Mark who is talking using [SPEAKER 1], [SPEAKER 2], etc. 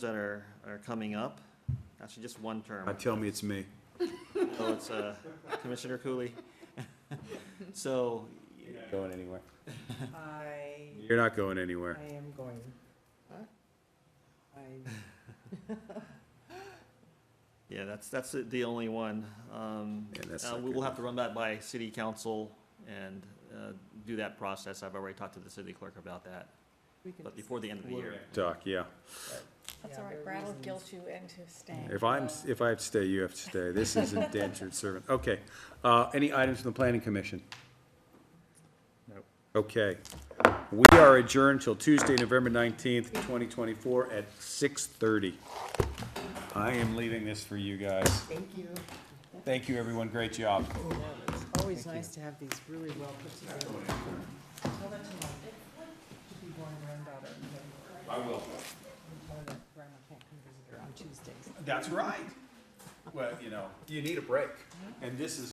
[SPEAKER 1] that are, are coming up. Actually, just one
[SPEAKER 2] Uh,
[SPEAKER 1] term,
[SPEAKER 2] tell me it's me.
[SPEAKER 1] so it's uh, Commissioner Cooley. So,
[SPEAKER 2] Going anywhere.
[SPEAKER 3] I,
[SPEAKER 2] You're not going anywhere.
[SPEAKER 3] I am going. I,
[SPEAKER 1] yeah, that's, that's the- the only one. Um,
[SPEAKER 2] Yeah, that's
[SPEAKER 1] uh,
[SPEAKER 2] not
[SPEAKER 1] We will
[SPEAKER 2] good.
[SPEAKER 1] have to run that by city council and uh, do that process. I've already talked to the city clerk about that,
[SPEAKER 3] we can.
[SPEAKER 1] but before the end of the year.
[SPEAKER 2] Doc, yeah.
[SPEAKER 4] That's
[SPEAKER 3] Yeah,
[SPEAKER 4] all right,
[SPEAKER 3] there are
[SPEAKER 4] Brad will
[SPEAKER 3] reasons.
[SPEAKER 4] guilt you into staying.
[SPEAKER 2] If I'm, if I have to stay, you have to stay. This is indentured servant. Okay. Uh, any items from the planning commission? No. Okay. We are adjourned till Tuesday, November nineteenth, twenty twenty-four at six thirty. I am leaving this for you guys.
[SPEAKER 3] Thank you.
[SPEAKER 2] Thank you, everyone. Great job.
[SPEAKER 3] Yeah, It's always nice to have these really well put together. Tell that to my, to be born granddaughter. I will. Tell her that grandma can't come visit her on Tuesdays.
[SPEAKER 2] That's right. Well, you know. You need a break. And this is